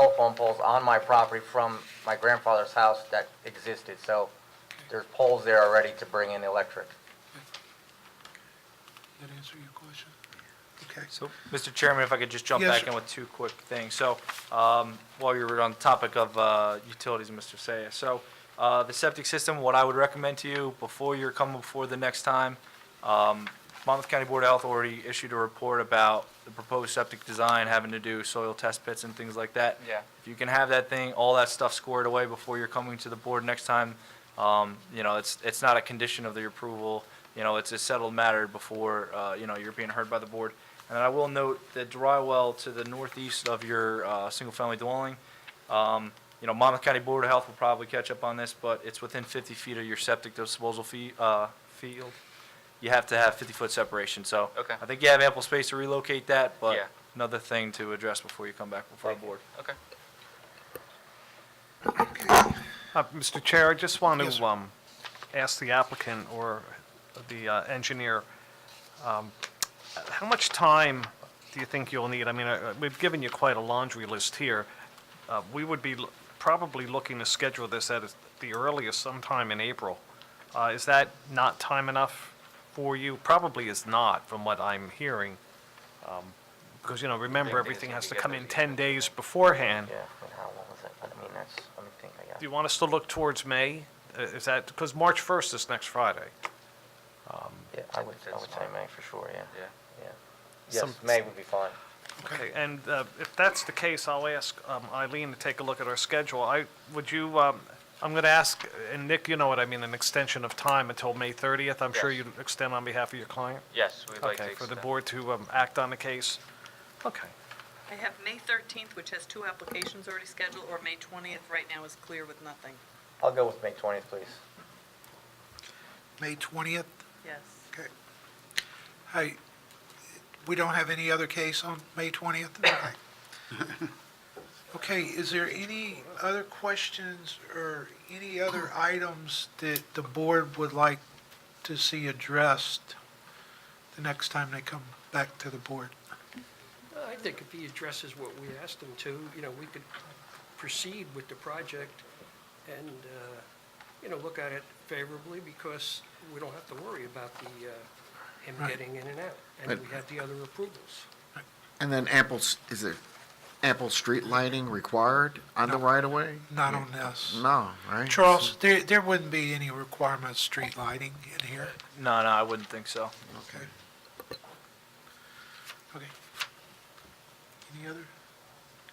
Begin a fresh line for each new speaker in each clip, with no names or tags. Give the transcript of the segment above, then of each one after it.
telephone poles on my property from my grandfather's house that existed, so there's poles there already to bring in electric.
Did that answer your question? Okay.
So, Mr. Chairman, if I could just jump
Yes,
back
sir.
in with two quick things. So, um, while you were on the topic of uh, utilities, Mr. Saya, so uh, the septic system, what I would recommend to you before you're coming before the next time, um, Monmouth County Board of Health already issued a report about the proposed septic design having to do soil test pits and things like that.
Yeah.
If you can have that thing, all that stuff squared away before you're coming to the board next time, um, you know, it's, it's not a condition of the approval, you know, it's a settled matter before, uh, you know, you're being heard by the board. And I will note the dry well to the northeast of your, uh, single-family dwelling, um, you know, Monmouth County Board of Health will probably catch up on this, but it's within fifty feet of your septic disposal fee, uh, field. You have to have fifty-foot separation, so.
Okay.
I think you have ample space to relocate that,
Yeah.
but another thing to address before you come back before the board.
Okay.
Uh, Mr. Chair, I just want
Yes,
to
sir.
um, ask the applicant or the uh, engineer, um, how much time do you think you'll need? I mean, uh, we've given you quite a laundry list here. Uh, We would be l- probably looking to schedule this at the earliest sometime in April. Uh, Is that not time enough for you? Probably is not, from what I'm hearing. Um, Because, you know, remember,
Thing is,
everything
we
has to
get
come
the-
in 10 days beforehand.
Yeah, but how long is it? I mean, that's, let me think, I
Do
got.
you want us to look towards May? Uh, Is that, because March 1st is next Friday.
Yeah, I would, I would say May for sure, yeah.
Yeah.
Yeah.
Some-
Yes, May would be fine.
Okay. And uh, if that's the case, I'll ask um, Eileen to take a look at our schedule. I, would you, um, I'm going to ask, and Nick, you know what I mean, an extension of time until May 30th? I'm sure
Yes.
you'd extend on behalf of your client?
Yes, we'd like to.
Okay, for the
extend.
board to um, act on the case? Okay.
I have May 13th, which has two applications already scheduled, or May 20th, right now is clear with nothing.
I'll go with May twentieth, please.
May 20th?
Yes.
Okay. Hey, we don't have any other case on May 20th? Okay. Okay, is there any other questions or any other items that the board would like to see addressed the next time they come back to the board?
I think if he addresses what we asked him to, you know, we could proceed with the project and, uh, you know, look at it favorably because we don't have to worry about the, uh, him
Right.
getting in and out. And we have the other approvals.
And then ample, s- is there ample street lighting required on the right-of-way?
Not on this.
No, right?
Charles, there, there wouldn't be any requirement of street lighting in here?
No, no, I wouldn't think so.
Okay. Okay. Any other?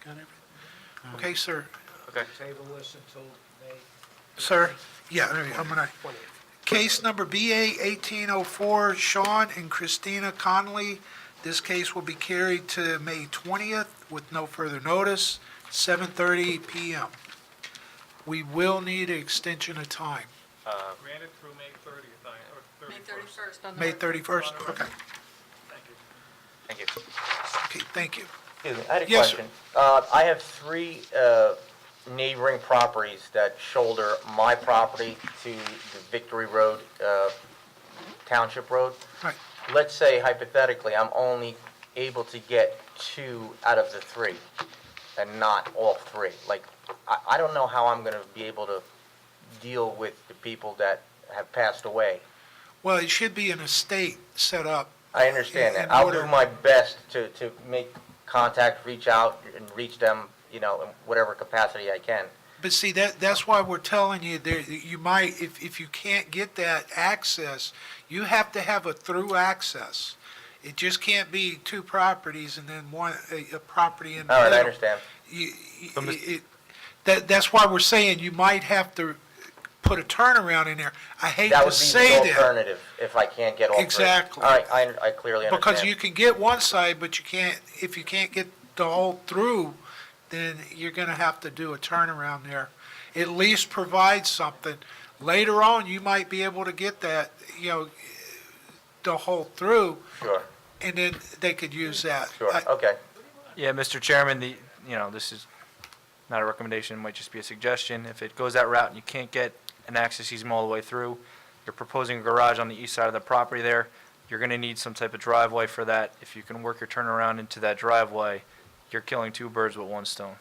Got everything? Okay, sir.
Okay.
Table this until May
Sir? Yeah, there you go. I'm gonna,
20th.
case number BA 1804, Sean and Christina Conley. This case will be carried to May 20th with no further notice, 7:30 PM. We will need an extension of time.
Granted through May 30th, or
May 31st on the.
May 31st? Okay,
Thank you.
Thank you.
okay, thank you.
Excuse me, I had a
Yes, sir.
question. Uh, I have three uh, neighboring properties that shoulder my property to the Victory Road, uh, Township Road.
Right.
Let's say hypothetically, I'm only able to get two out of the three and not all three. Like, I, I don't know how I'm going to be able to deal with the people that have passed away.
Well, it should be an estate set up
I understand
In
that. I'll
order-
do my best to, to make contact, reach out and reach them, you know, in whatever capacity I can.
But see, that, that's why we're telling you there, you might, if, if you can't get that access, you have to have a through access. It just can't be two properties and then one, a, a property in the
All right,
middle.
I understand.
You-
So, Mis-
it- that, that's why we're saying you might have to put a turnaround in there. I hate
That
to
would be
say
the
that,
alternative if I can't get all three.
Exactly.
All right, I, I clearly understand.
because you can get one side, but you can't, if you can't get the whole through, then you're gonna have to do a turnaround there. At least provide something. Later on, you might be able to get that, you know, the whole through,
Sure,
and then they could use that.
sure,
I-
okay.
Yeah, Mr. Chairman, the, you know, this is not a recommendation, it might just be a suggestion. If it goes that route and you can't get an access easement all the way through, you're proposing a garage on the east side of the property there, you're gonna need some type of driveway for that. If you can work your turnaround into that driveway, you're killing two birds with one stone.